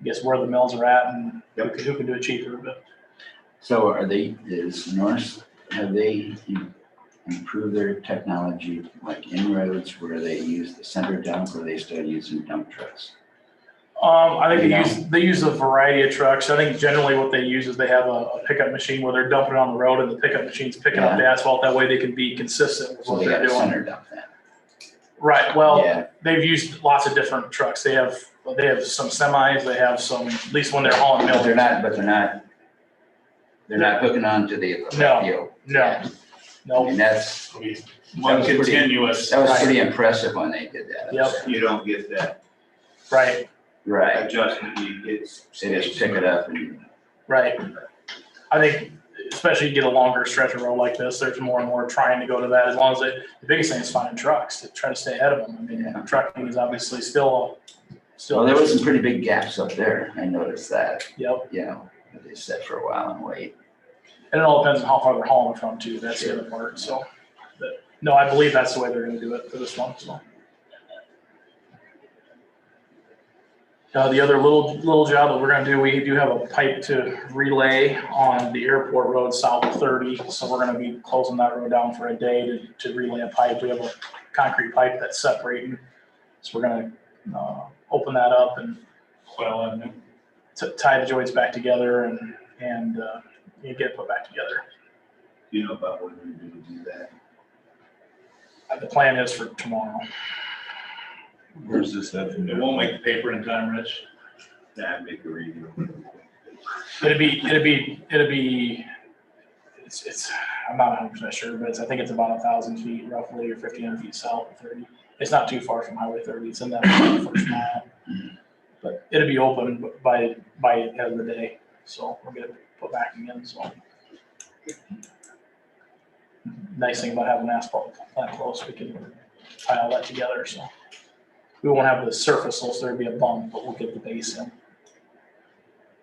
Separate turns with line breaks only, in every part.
I guess where the mills are at and who
Yep.
can, who can do it cheaper, but
So are they, is Norse, have they im- improved their technology like inroads where they use the center dump or they still using dump trucks?
um, I think they use, they use a variety of trucks. I think generally what they use is they have a a pickup machine where they're dumping it on the road and the pickup machine's picking up the asphalt. That way they can be consistent with
So
what
they got
they're
a
doing.
center dump then?
Right, well,
Yeah,
they've used lots of different trucks. They have, they have some semis, they have some, at least when they're hauling
but
mills.
they're not, but they're not, they're not hooking on to the.
No,
field.
No, no.
And that's,
One
That was pretty-
continuous.
that was pretty impressive when they did that.
Yep.
You don't get that
Right,
Right,
adjustment, you get.
they just pick it up and,
right. I think, especially you get a longer stretch of road like this, there's more and more trying to go to that, as long as it, the biggest thing is finding trucks, to try to stay ahead of them. I
Yeah.
mean, trucking is obviously still,
well, there
still,
was some pretty big gaps up there. I noticed that,
yep.
you know, that they sat for a while and wait.
And it all depends on how far they're hauling from too, that's the other part, so. but, No, I believe that's the way they're gonna do it for this one, so. Uh, the other little, little job that we're gonna do, we do have a pipe to relay on the airport road south of thirty, so we're gonna be closing that road down for a day to, to relay a pipe. We have a concrete pipe that's separating, so we're gonna, uh, open that up and
Well, and
t- tie the joints back together and, and, uh, get it put back together.
You know about when you're gonna do that.
Uh, The plan is for tomorrow.
Where's this at?
it won't make the paper in time, Rich.
That make a reading.
It'd be, it'd be, it'd be, it's, it's, I'm not hundred percent sure, but it's, I think it's about a thousand feet roughly or fifteen hundred feet south of thirty. It's not too far from Highway thirty. It's in that first mile. But it'll be open by, by the end of the day. So we're gonna put back again, so. Nice thing about having asphalt that close, we can tie all that together, so. We won't have the surface, so there'll be a bump, but we'll get the base in.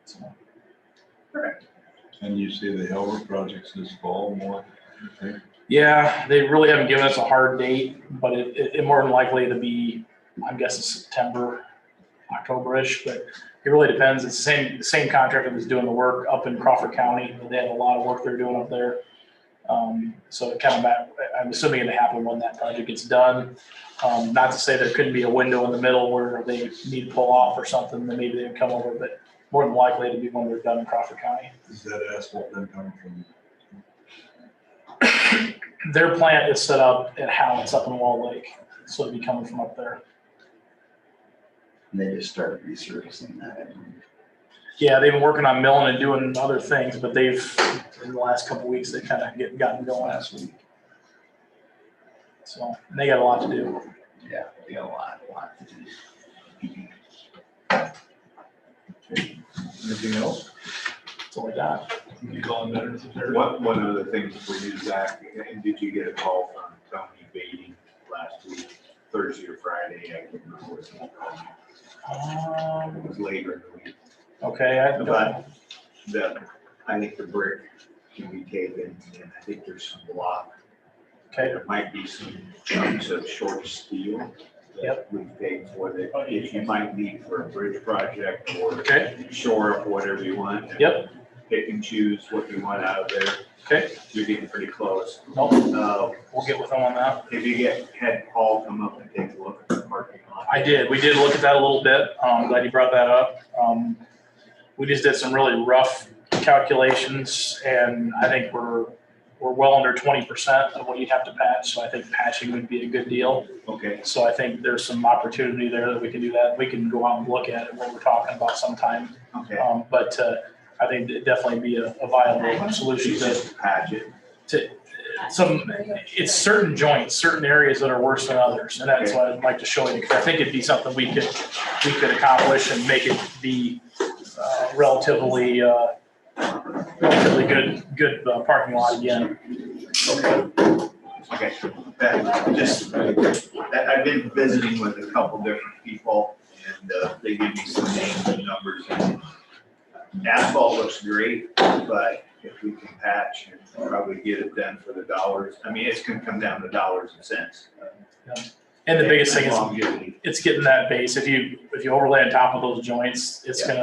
So.
And you say the Helbert projects this fall more? okay?
Yeah, they really haven't given us a hard date, but it, it, it more than likely to be, I'm guessing September, October-ish, but it really depends. It's the same, the same contractor that's doing the work up in Crawford County. They have a lot of work they're doing up there. Um, so it kind of, ma- I'm assuming it'll happen when that project gets done. Um, not to say there couldn't be a window in the middle where they need to pull off or something, then maybe they'd come over, but more than likely it'll be when they're done in Crawford County.
Is that asphalt then coming from?
their plant is set up at Howard's up in Wall Lake, so it'd be coming from up there.
And they just started resurfacing that.
Yeah, they've been working on milling and doing other things, but they've, in the last couple weeks, they kind of get, gotten going,
last week.
so, and they got a lot to do.
Yeah, we got a lot, a lot to do.
Anything else?
That's all I got.
You call them better than third.
One, one of the things before you, Zach, and did you get a call from Tony Beatty last week, Thursday or Friday? I can't remember what he called me. It
Um,
was later in the week.
Okay, I,
But the, I think the brick can be taken, and I think there's some block.
okay,
There might be some chunks of short steel that we paid for that if you might need for a bridge project or
Oh, okay,
shore up whatever you want.
Yep.
Pick and choose what you want out of there.
okay,
You're getting pretty close.
nope,
Uh,
we'll get with them on that.
If you get, had Paul come up and take a look at the parking lot.
I did. We did look at that a little bit. Um, glad you brought that up. Um, we just did some really rough calculations and I think we're, we're well under twenty percent of what you'd have to patch. So I think patching would be a good deal.
Okay,
So I think there's some opportunity there that we can do that. We can go out and look at it, what we're talking about sometime.
okay.
Um, but, uh, I think it'd definitely be a a viable solution
She's
to
just patch it.
some, it's certain joints, certain areas that are worse than others, and that's what I'd like to show you, because I think it'd be something we could, we could accomplish and make it be uh, relatively, uh, relatively good, good uh, parking lot again.
Okay, that, just, that, I've been visiting with a couple different people and, uh, they gave me some names and numbers. Asphalt looks great, but if we can patch and probably get it done for the dollars, I mean, it's gonna come down to dollars and cents.
And the biggest thing is,
Longevity.
it's getting that base, if you, if you overlay on top of those joints, it's
Yeah.
gonna